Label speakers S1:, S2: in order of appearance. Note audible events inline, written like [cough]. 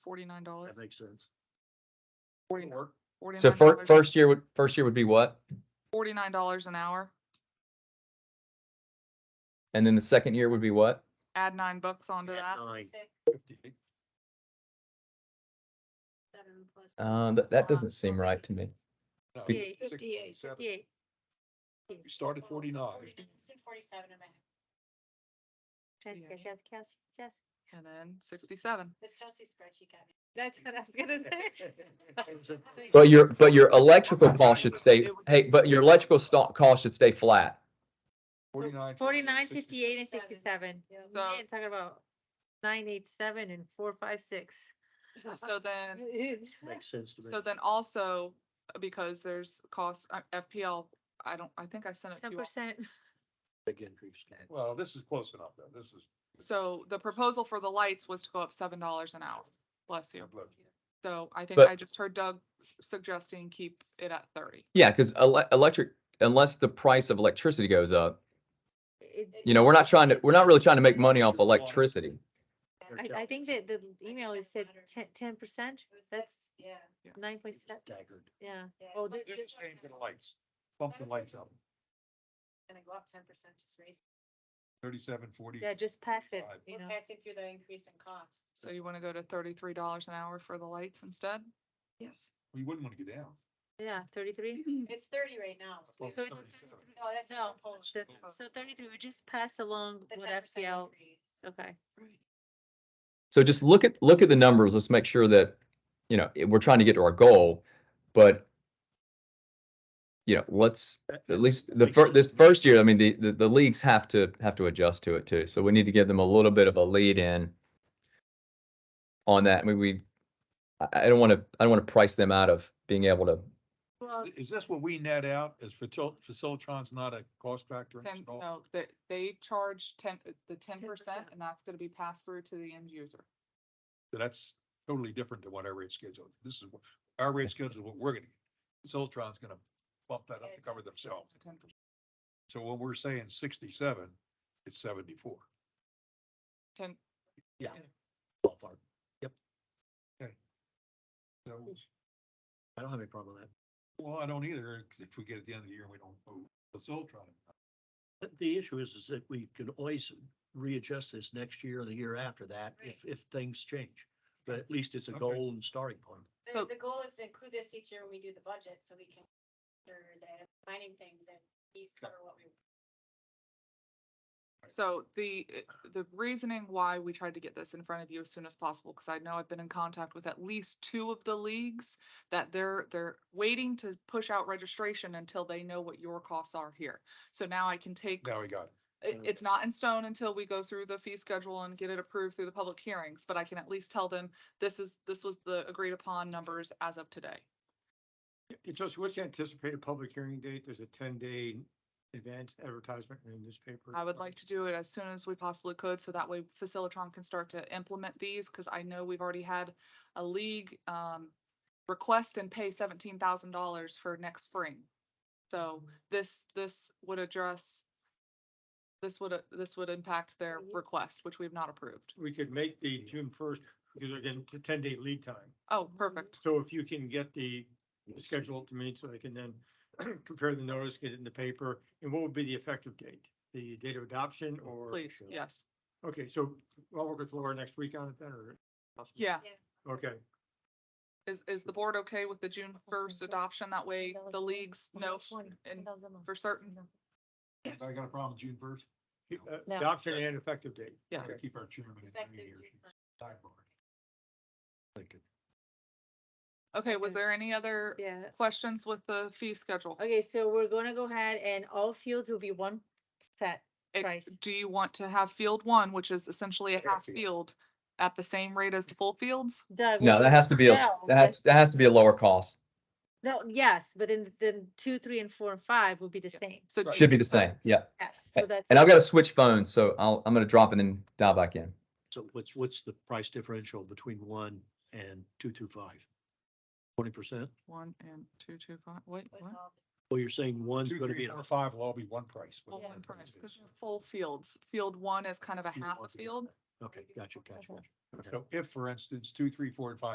S1: forty-nine dollars,
S2: That makes sense.
S1: forty-nine,
S2: Or
S3: So
S1: forty-nine
S3: fir-
S1: dollars.
S3: first year would, first year would be what?
S1: Forty-nine dollars an hour,
S3: And then the second year would be what?
S1: add nine bucks onto that.
S2: at nine
S4: Six,
S2: fifty.
S4: seven plus
S3: Uh, that, that doesn't seem right to me.
S5: No,
S4: Fifty-eight,
S5: six,
S4: fifty-eight,
S5: seven.
S4: fifty-eight.
S5: We started
S6: [laughs]
S5: forty-nine.
S4: Six forty-seven a minute.
S1: Yeah.
S4: Jessica, Jessica, Jessica,
S1: And then sixty-seven.
S4: it's Chelsea's spreadsheet got me. That's what I was gonna [laughs] say.
S3: But your, but your electrical cost should stay, hey, but your electrical sto- cost should stay flat.
S5: Forty-nine.
S6: Forty-nine,
S5: 60.
S6: fifty-eight and
S4: Seven.
S6: sixty-seven.
S4: Yeah.
S6: We ain't talking about nine, eight, seven and four, five, six.
S4: [laughs]
S1: So
S6: [laughs]
S1: then,
S2: Makes sense to me.
S1: so then also, uh, because there's cost, uh, FPL, I don't, I think I sent it to
S6: Ten
S1: you. all.
S6: percent.
S2: Big increase.
S5: Well, this is close enough though. This is.
S1: So the proposal for the lights was to go up seven dollars an hour, bless you.
S5: look,
S1: So I think
S3: But-
S1: I just heard Doug s- suggesting keep it at thirty.
S3: Yeah, because ele- electric, unless the price of electricity goes up, you know, we're not trying to, we're not really trying to make money off electricity.
S6: I, I think that the email is said
S4: Matter.
S6: ten, ten percent, that's
S4: Yeah.
S6: nine point seven,
S2: Staggered.
S6: yeah.
S4: yeah.
S6: Oh,
S4: Like,
S6: did
S4: you're
S5: Just
S4: talking
S5: change the
S4: about
S5: lights, bump the lights up,
S4: Gonna go up ten percent, just raise.
S5: thirty-seven, forty.
S6: Yeah, just pass it,
S5: Five.
S6: you
S4: We're
S6: know.
S4: passing through the increase in cost.
S1: So you want to go to thirty-three dollars an hour for the lights
S6: [clears throat]
S1: instead?
S4: Yes.
S5: We wouldn't want to get down.
S6: Yeah, thirty-three.
S4: It's thirty right now.
S5: Well,
S4: No,
S6: So it-
S5: 37.
S4: that's
S6: No,
S4: not Polish.
S6: the- so thirty-three, we just pass along
S4: The
S6: what
S4: 10%
S6: FPL,
S4: increase.
S6: okay.
S3: So just look at, look at the numbers. Let's make sure that, you know, we're trying to get to our goal, but you know, let's, at least the
S2: Makes
S3: fir-
S2: sense
S3: this
S2: to me.
S3: first year, I mean, the, the, the leagues have to, have to adjust to it too. So we need to give them a little bit of a lead in on that. I mean, we, I, I don't want to, I don't want to price them out of being able to,
S6: Well,
S5: Is this what we net out? Is Facil- Facilitron's not a cost factor in this
S1: Ten,
S5: at all?
S1: no, they, they charge ten, uh, the ten percent
S6: 10%.
S1: and that's gonna be passed through to the end user.
S5: So That's totally different than what our rate schedule. is. This is, what- our rate schedule is what we're gonna, get. Facilitron's gonna bump that up to cover themselves. So when we're saying sixty-seven, it's seventy-four.
S1: Ten,
S2: Yeah.
S1: Yeah.
S2: Ballpark.
S5: So,
S2: I don't have any problem with that.
S5: well, I don't either, 'cause if we get at the end of the year, we don't owe Facilitron.
S2: But The issue is, is that we can always readjust this next year or the year after that if, if things change. But at least it's a
S5: Okay.
S2: goal and starting point.
S1: So-
S4: The, the goal is to include this each year when we do the budget, so we can, consider that planning things and these cover what we.
S1: so the, uh, the reasoning why we tried to get this in front of you as soon as possible, because I know I've been in contact with at least two of the leagues that they're, they're waiting to push out registration until they know what your costs are here. So now I can take
S5: Now we got it.
S1: it,
S2: Mm.
S1: it's not in stone until we go through the fee schedule and get it approved through the public hearings, but I can at least tell them this is, this was the agreed upon numbers as of today.
S7: And Chelsea, what's the anticipated public hearing date? There's a ten day advance advertisement in the newspaper.
S1: I would like to do it as soon as we possibly could, so that way Facilitron can start to implement these, because I know we've already had a league um request and pay seventeen thousand dollars for next spring. So this, this would address this would, this would impact their request, which we've not approved.
S7: We could make the June first, because again, it's a ten day lead time.
S1: Oh, perfect.
S7: So if you can get the schedule to me, so I can then [clears throat] compare the notice, get it in the paper, and what would be the effective date? The date of adoption or?
S1: Please, yes.
S7: Okay, so I'll work with Laura next week on it then, or?
S1: Yeah.
S7: Okay,
S1: Is, is the board okay with the June first adoption? That way the leagues know and for certain.
S5: I got a problem with June first.
S7: Uh, adoption and effective date.
S1: Yeah.
S7: Okay.
S5: Keep our chairman. in
S4: Effective
S5: here.
S4: June first.
S5: Sidebar.
S1: Okay, was
S6: Okay.
S1: there any other
S6: yeah.
S1: questions with the fee schedule?
S6: Okay, so we're gonna go ahead and all fields will be one set.
S1: It-
S6: price.
S1: Do you want to have field one, which is essentially a
S5: Yeah,
S1: half
S5: field.
S1: field at the same rate as the full fields?
S6: Doug.
S3: no,
S6: what-
S3: that has to be, a
S6: No,
S3: that has,
S6: that's-
S3: that has to be a lower cost.
S6: No, yes, but then, then two, three, and four, and five will be the same.
S1: So
S3: Should be the same, yeah.
S6: Yes, so that's.
S3: And I've got to switch phones, so I'll, I'm going to drop and then dial back in.
S2: So what's, what's the price differential between one and two, two, five? Twenty percent?
S1: one and two, two, five, wait,
S4: What's
S1: what?
S4: all
S2: Well, you're saying one's
S5: Two,
S2: gonna
S5: three,
S2: be,
S5: four,
S2: a-
S5: five will all be one price.
S1: Full
S5: whatever
S1: one
S5: the
S1: price,
S5: is.
S1: because full fields. Field one is kind of a
S5: You
S1: half a
S5: want to get
S1: field
S2: Okay, gotcha, gotcha, gotcha.
S5: So if, for instance, two, three, four, and five